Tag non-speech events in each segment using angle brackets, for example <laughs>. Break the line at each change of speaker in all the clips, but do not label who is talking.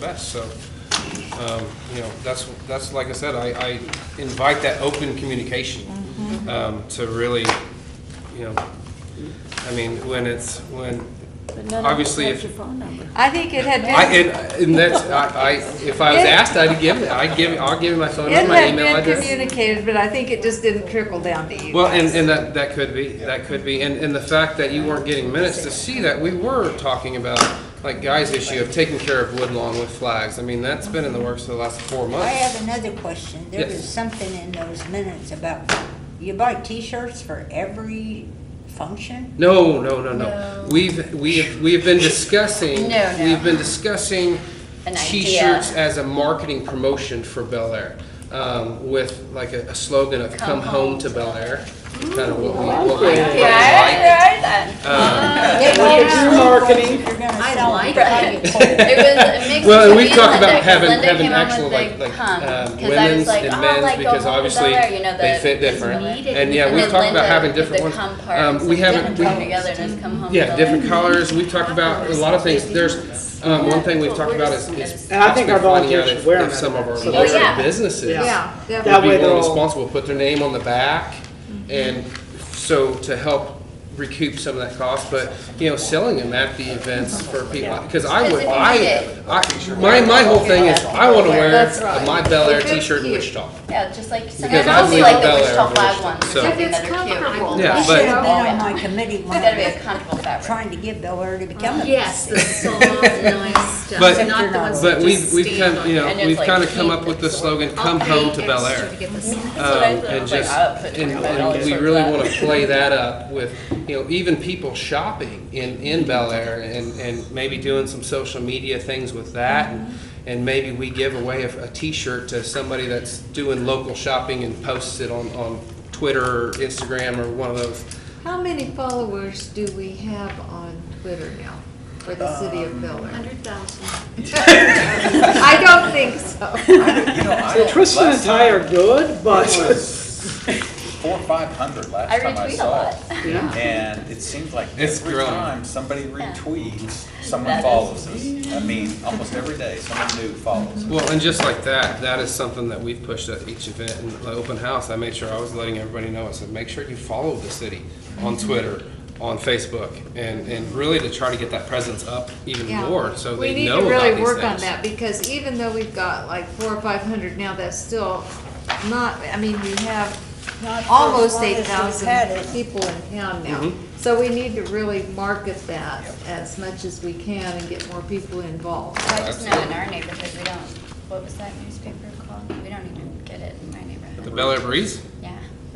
best, so, um, you know, that's, that's, like I said, I, I invite that open communication,
Mm-hmm.
um, to really, you know, I mean, when it's, when,
But none of us
obviously,
have
if,
your phone number.
I think it had
<laughs>
I,
been,
and, and that's, I, I, if I was asked, I'd give, it. I'd give, I'll give you my phone
it
number, my
had
email
been
address.
communicated, but I think it just didn't trickle down to you.
Well, and,
guys.
and that, that could be, that could be, and, and the fact that you weren't getting minutes to see that, we were talking about, like, Guy's issue of taking care of Woodlawn with flags, I mean, that's been in the works for the last four months.
I have another question. There
Yes.
was something in those minutes about, you buy T-shirts for every function?
No, no, no, no. We've, we've, we've been discussing,
No, no.
we've been discussing
An idea.
t-shirts as a marketing promotion for Bel Air. Um, with like a a slogan of come home to Bel Air, kind of what we, what we- what we like. Um,
Uh, It's marketing.
I don't like
it.
<laughs>
It was a mix
Well, and
between
we've talked
Linda,
about
'cause
having,
Linda
having
came up
actual
with
like,
the
like, um,
cum, 'cause I was
women's
like,
and
oh,
men's,
like
because
Oklahoma
obviously
Bel Air, you know,
they
the-
fit
it's
different.
needed.
And yeah,
And
we've
then
talked about
Linda
having
with the
different ones.
cum part,
Um,
it's
we
like
haven't,
different
we-
cum together and it's come home
Yeah,
together.
different colors, we've talked about a lot of things, there's, um, one thing we've talked about is, is
And I think our
possibly finding out
volunteers
if-
should wear
if
them
some of our
at events.
Oh, yeah.
larger businesses
Yeah.
Yeah,
would
That
be
way
more
they'll-
responsible, put their name on the back, and so to help recoup some of that cost, but, you know, selling them at the events for people, because I would,
Because if you
I, I, my, my whole thing is, I wanna wear
That's
a
right.
my Bel Air
If it's
t-shirt in
cute.
Wichita.
Yeah, just like, some
Because
and
I
also
believe
like
in Bel Air
the Wichita
and
flag
Wichita,
ones, or
so-
something
If it's
that are cute.
comfortable.
Yeah,
I
but-
should have been
<laughs>
on my committee
It's gotta be
<laughs>
a
when
comfortable fabric.
trying to get Bel Air to become a.
Yes, the soft, nice
<laughs>
stuff,
But-
not the ones
But
that
we've,
just
we've
stand
come,
on.
you know,
And it's
we've
like
kinda come
heat
up with the
that's
slogan,
I'll
come
pay
home to Bel
extra
Air.
to get this soft.
That's what I
Um,
thought. I
and
was like,
just,
I'll put
and
$25
and we
for
really
that.
want to play that up with, you know, even people shopping in, in Bel Air and, and maybe doing some social media things with that. and-
Mm-hmm.
And maybe we give away a, a T-shirt to somebody that's doing local shopping and posts it on, on Twitter or Instagram or one of those.
How many followers do we have on Twitter now for the city of Bel Air?
Hundred thousand. Uh,
I don't think
<laughs>
so.
You know, I,
So Tristan and
last
Ty are
time,
good,
it
but.
was <laughs> four, or five hundred
I
last time I
retweet a
saw
lot.
it.
Yeah.
And it seems like
It's
every
growing.
time somebody retweets, someone
That
follows us. I mean, almost every day, someone new follows us.
Well, and just like that, that is something that we've pushed at each event and the open house. I made sure I was letting everybody know. I said, make sure you follow the city on Twitter, on Facebook, and, and really to try to get that presence up even
Yeah.
more so
We
they
need
know
to
about these things.
really work on that because even though we've got like four or five hundred now, that's still not, I mean, we have
Not for as
almost
long as
eight
we've had
thousand
it.
people in town now.
Mhm.
So we need to really market that as much as we can and get more people involved.
I just know in our neighborhood, we don't, what was that newspaper called? We don't even get it in my
The
neighborhood.
Bel Air Breeze?
Yeah.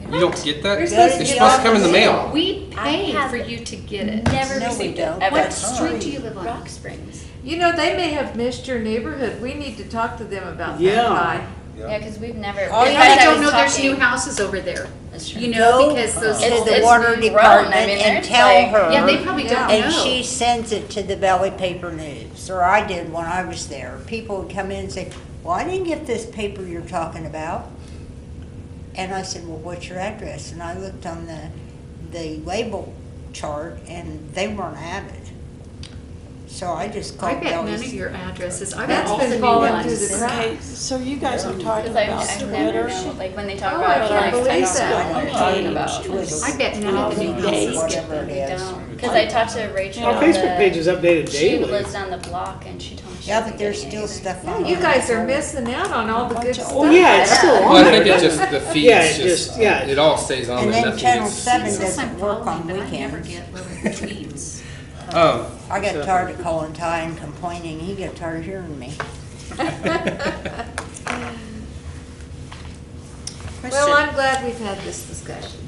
we
You don't get that?
We're
It's
supposed to get
supposed to
it.
come in the mail.
We pay
have
for you to get it.
Never
No, we
received it,
don't.
ever.
What street do you live on?
Rock Springs.
You know, they may have missed your neighborhood. We need to talk to them about that
Yeah.
pie.
Yeah, because we've never.
Oh,
in
yeah.
I
fact,
don't
was
know there's new
talking-
houses over there,
That's true.
you know,
Go
because those.
to
It's-
the
it's
water
grown. I
department
mean,
and
there's
tell
like-
her.
Yeah, they probably don't know.
And she sends it to the Valley Paper News, or I did when I was there. People would come in and say, well, I didn't get this paper you're talking about. And I said, well, what's your address? And I looked on the, the label chart and they weren't at it. So I just
I
called
bet none of
Valley's.
your addresses, I bet
That's
all the
been
new
falling through
ones.
the cracks.
Okay, so you guys are talking
Because I've,
about
I've never
Twitter.
known, like when they talk
Oh,
about
I
it,
can't
like, I
believe
don't
that.
know what they're talking about.
I bet none of the new
Okay.
houses get
Whatever
them.
it
We
is.
don't, because I talked to Rachel.
<laughs> Our
on
Facebook
the-
page is updated
She
daily.
lives down the block and she told me she
Yeah,
wasn't
but there's
getting it
still
either.
stuff.
Yeah,
on
you
there.
guys are missing out on all the good stuff.
Oh, yeah, it's still
Well,
on
I think it
there.
just, the
Yeah,
feeds
it
just,
just- yeah.
it all stays on
And
there,
then
nothing
Channel
gets-
Seven
Since I'm
doesn't work on
following, but I never
weekends.
get little tweets.
Um,
I got tired of calling Ty and complaining. He got tired of hearing me.
Well, I'm glad we've had this discussion.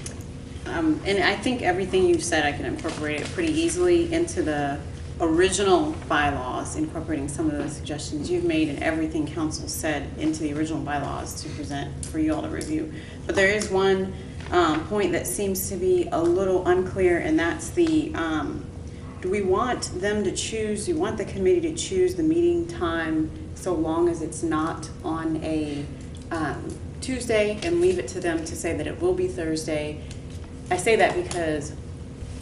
Um, And I think everything you've said, I can incorporate it pretty easily into the original bylaws, incorporating some of the suggestions you've made and everything council said into the original bylaws to present for you all to review. But there is one um, point that seems to be a little unclear, and that's the, um, do we want them to choose, do you want the committee to choose the meeting time so long as it's not on a um, Tuesday and leave it to them to say that it will be Thursday? I say that because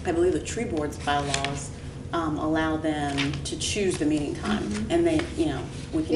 I believe the tree board's bylaws um, allow them to choose the meeting time. And they, you know, we can